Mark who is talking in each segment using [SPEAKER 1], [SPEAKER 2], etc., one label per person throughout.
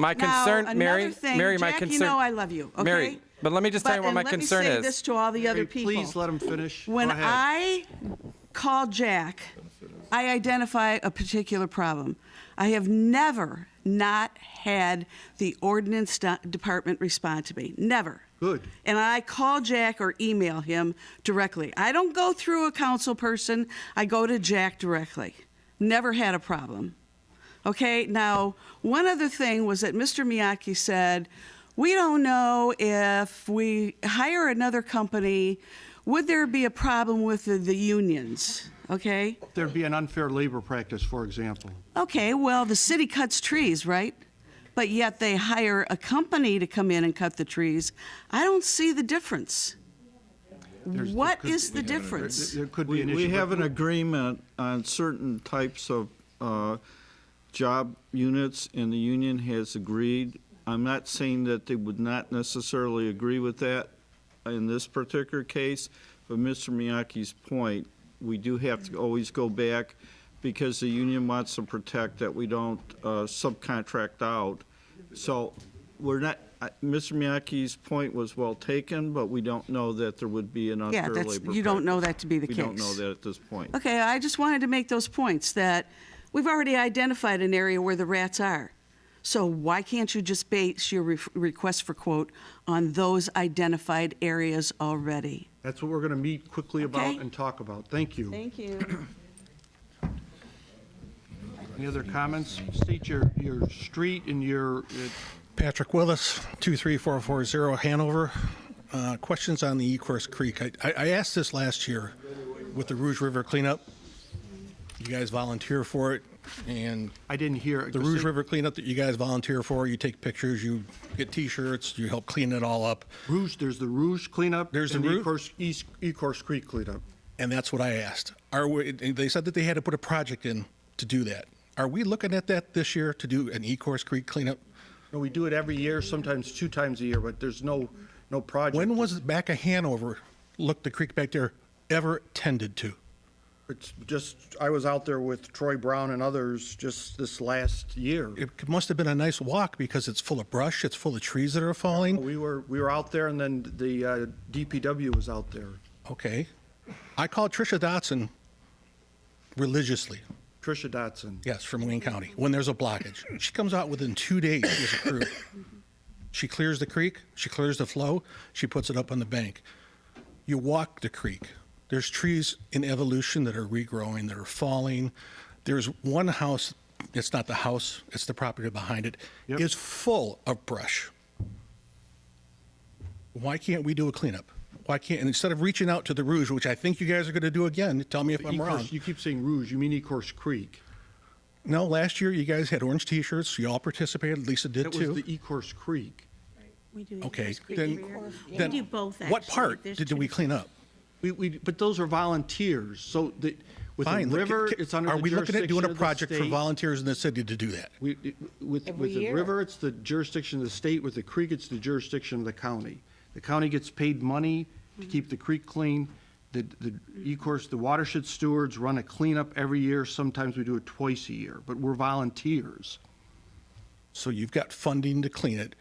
[SPEAKER 1] My concern,
[SPEAKER 2] now,
[SPEAKER 1] Mary,
[SPEAKER 2] another thing,
[SPEAKER 1] Mary, my
[SPEAKER 2] Jack,
[SPEAKER 1] concern.
[SPEAKER 2] you know I love you, okay?
[SPEAKER 1] Mary, but let me just tell you what
[SPEAKER 2] and
[SPEAKER 1] my concern
[SPEAKER 2] Let
[SPEAKER 1] is.
[SPEAKER 2] me say this to all the other
[SPEAKER 3] Mary,
[SPEAKER 2] people.
[SPEAKER 3] please let him finish. Go
[SPEAKER 2] When
[SPEAKER 3] ahead.
[SPEAKER 2] I call Jack, I identify a particular problem. I have never not had the ordinance do- department respond to me, never.
[SPEAKER 3] Good.
[SPEAKER 2] And I call Jack or email him directly. I don't go through a council person, I go to Jack directly. Never had a problem. Okay, now, one other thing was that Mr. Miyaki said, we don't know if we hire another company, would there be a problem with the, the unions? Okay?
[SPEAKER 3] There'd be an unfair labor practice, for example.
[SPEAKER 2] Okay, well, the city cuts trees, right? But yet they hire a company to come in and cut the trees. I don't see the difference.
[SPEAKER 3] There's-
[SPEAKER 2] What
[SPEAKER 3] there
[SPEAKER 2] is
[SPEAKER 3] could-
[SPEAKER 2] the
[SPEAKER 3] There
[SPEAKER 2] difference?
[SPEAKER 3] there could be
[SPEAKER 4] We
[SPEAKER 3] an
[SPEAKER 4] we
[SPEAKER 3] issue.
[SPEAKER 4] have
[SPEAKER 3] but
[SPEAKER 4] an agreement on certain types of uh, job units, and the union has agreed. I'm not saying that they would not necessarily agree with that in this particular case, but Mr. Miyake's point, we do have to always go back because the union wants to protect that we don't uh, subcontract out. So we're not, I- Mr. Miyake's point was well taken, but we don't know that there would be an
[SPEAKER 2] Yeah,
[SPEAKER 4] unfair labor
[SPEAKER 2] that's,
[SPEAKER 4] practice.
[SPEAKER 2] you don't know that to be the
[SPEAKER 4] We
[SPEAKER 2] case.
[SPEAKER 4] don't know that at this point.
[SPEAKER 2] Okay, I just wanted to make those points that we've already identified an area where the rats are. So why can't you just base your re- request for quote on those identified areas already?
[SPEAKER 3] That's what we're going to meet quickly about
[SPEAKER 2] Okay.
[SPEAKER 3] and talk about. Thank you.
[SPEAKER 2] you.
[SPEAKER 3] Any other comments? State your, your street and your, uh,
[SPEAKER 5] Patrick Willis, 23440 Hanover. Uh, Questions on the Ecorse Creek. I- I I asked this last year with the Rouge River cleanup. You guys volunteer for it, and
[SPEAKER 3] I didn't hear. it.
[SPEAKER 5] the Rouge River cleanup that you guys volunteer for, you take pictures, you get T-shirts, you help clean it all up,
[SPEAKER 3] Rouge, there's the Rouge cleanup.
[SPEAKER 5] There's the
[SPEAKER 3] and
[SPEAKER 5] Rouge-
[SPEAKER 3] Ecorse- East, Ecorse Creek cleanup.
[SPEAKER 5] and that's what I asked. Are we, and they said that they had to put a project in to do that. Are we looking at that this year to do an Ecorse Creek cleanup?
[SPEAKER 3] No, we do it every year, sometimes two times a year, but there's no, no project.
[SPEAKER 5] When was it back of Hanover, look, the creek back there, ever tended to?
[SPEAKER 3] It's just, I was out there with Troy Brown and others just this last year.
[SPEAKER 5] it must have been a nice walk because it's full of brush, it's full of trees that are falling.
[SPEAKER 3] We were, we were out there and then the uh, DPW was out there.
[SPEAKER 5] Okay. I called Tricia Dotson religiously,
[SPEAKER 3] Tricia Dotson.
[SPEAKER 5] yes, from Wayne County, when there's a blockage. She comes out within two days with a crew.
[SPEAKER 3] Mm-hmm.
[SPEAKER 5] She clears the creek, she clears the flow, she puts it up on the bank. You walk the creek. There's trees in evolution that are regrowing, that are falling. There's one house, it's not the house, it's the property behind it,
[SPEAKER 3] Yep.
[SPEAKER 5] is full of brush. why can't we do a cleanup? Why can't, and instead of reaching out to the Rouge, which I think you guys are going to do again, tell me if I'm
[SPEAKER 3] Ecorse-
[SPEAKER 5] wrong.
[SPEAKER 3] You keep saying Rouge, you mean Ecorse Creek.
[SPEAKER 5] No, last year you guys had orange T-shirts. You all participated. Lisa did
[SPEAKER 3] That was the
[SPEAKER 5] too.
[SPEAKER 3] Ecorse Creek.
[SPEAKER 6] We do.
[SPEAKER 5] Okay,
[SPEAKER 6] Ecorse Creek
[SPEAKER 5] then,
[SPEAKER 6] Rear. We
[SPEAKER 5] then
[SPEAKER 6] do both, actually.
[SPEAKER 5] what part
[SPEAKER 6] There's
[SPEAKER 5] did
[SPEAKER 6] two
[SPEAKER 5] we clean up?
[SPEAKER 3] We, we, but those are volunteers, so the, with the
[SPEAKER 5] Fine. look,
[SPEAKER 3] river,
[SPEAKER 5] ca-
[SPEAKER 3] it's under
[SPEAKER 5] Are
[SPEAKER 3] the
[SPEAKER 5] we looking at
[SPEAKER 3] jurisdiction
[SPEAKER 5] doing a
[SPEAKER 3] of the
[SPEAKER 5] project for
[SPEAKER 3] state.
[SPEAKER 5] volunteers in the city to do that?
[SPEAKER 3] We- With, with the river, it's the jurisdiction of the state, with the creek, it's the jurisdiction of the county. The county gets paid money to keep the creek clean. The, the, E-course, the watershed stewards run a cleanup every year, sometimes we do it twice a year, but we're volunteers.
[SPEAKER 5] So you've got funding to clean it.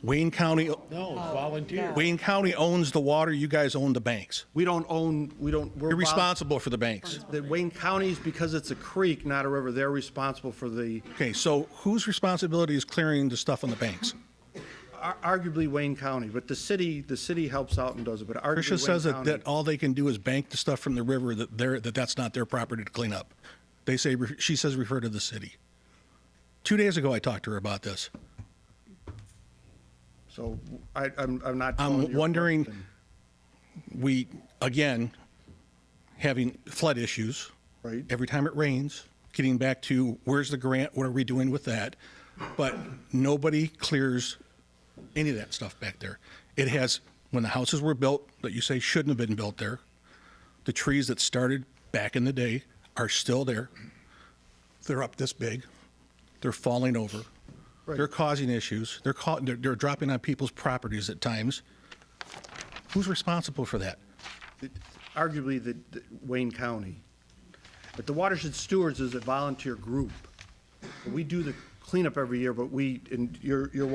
[SPEAKER 5] Wayne County. No, volunteer. Wayne County owns the water. You guys own the banks.
[SPEAKER 3] We don't own, we don't, we're.
[SPEAKER 5] You're
[SPEAKER 3] vol-
[SPEAKER 5] responsible for the banks.
[SPEAKER 3] That Wayne County's, because it's a creek, not a river, they're responsible for the,
[SPEAKER 5] Okay, so whose responsibility is clearing the stuff on the banks?
[SPEAKER 3] ar- arguably Wayne County, but the city, the city helps out and does it, but arguably Wayne County.
[SPEAKER 5] Tricia says that, that all they can do is bank the stuff from the river, that they're, that that's not their property to clean up. They say, she says refer to the city. Two days ago, I talked to her about this.
[SPEAKER 3] So I, I'm, I'm not. following
[SPEAKER 5] I'm
[SPEAKER 3] your
[SPEAKER 5] wondering,
[SPEAKER 3] question.
[SPEAKER 5] we, again, having flood issues.
[SPEAKER 3] Right.
[SPEAKER 5] Every time it rains, getting back to where's the grant, what are we doing with that? But nobody clears any of that stuff back there. It has, when the houses were built that you say shouldn't have been built there, the trees that started back in the day are still there. They're up this big. They're falling over. They're causing issues. They're, ca- they're, they're dropping on people's properties at times. Who's responsible for that?
[SPEAKER 3] arguably the, the Wayne County. But the Watershed Stewards is a volunteer group. We do the cleanup every year, but we, and you're, you're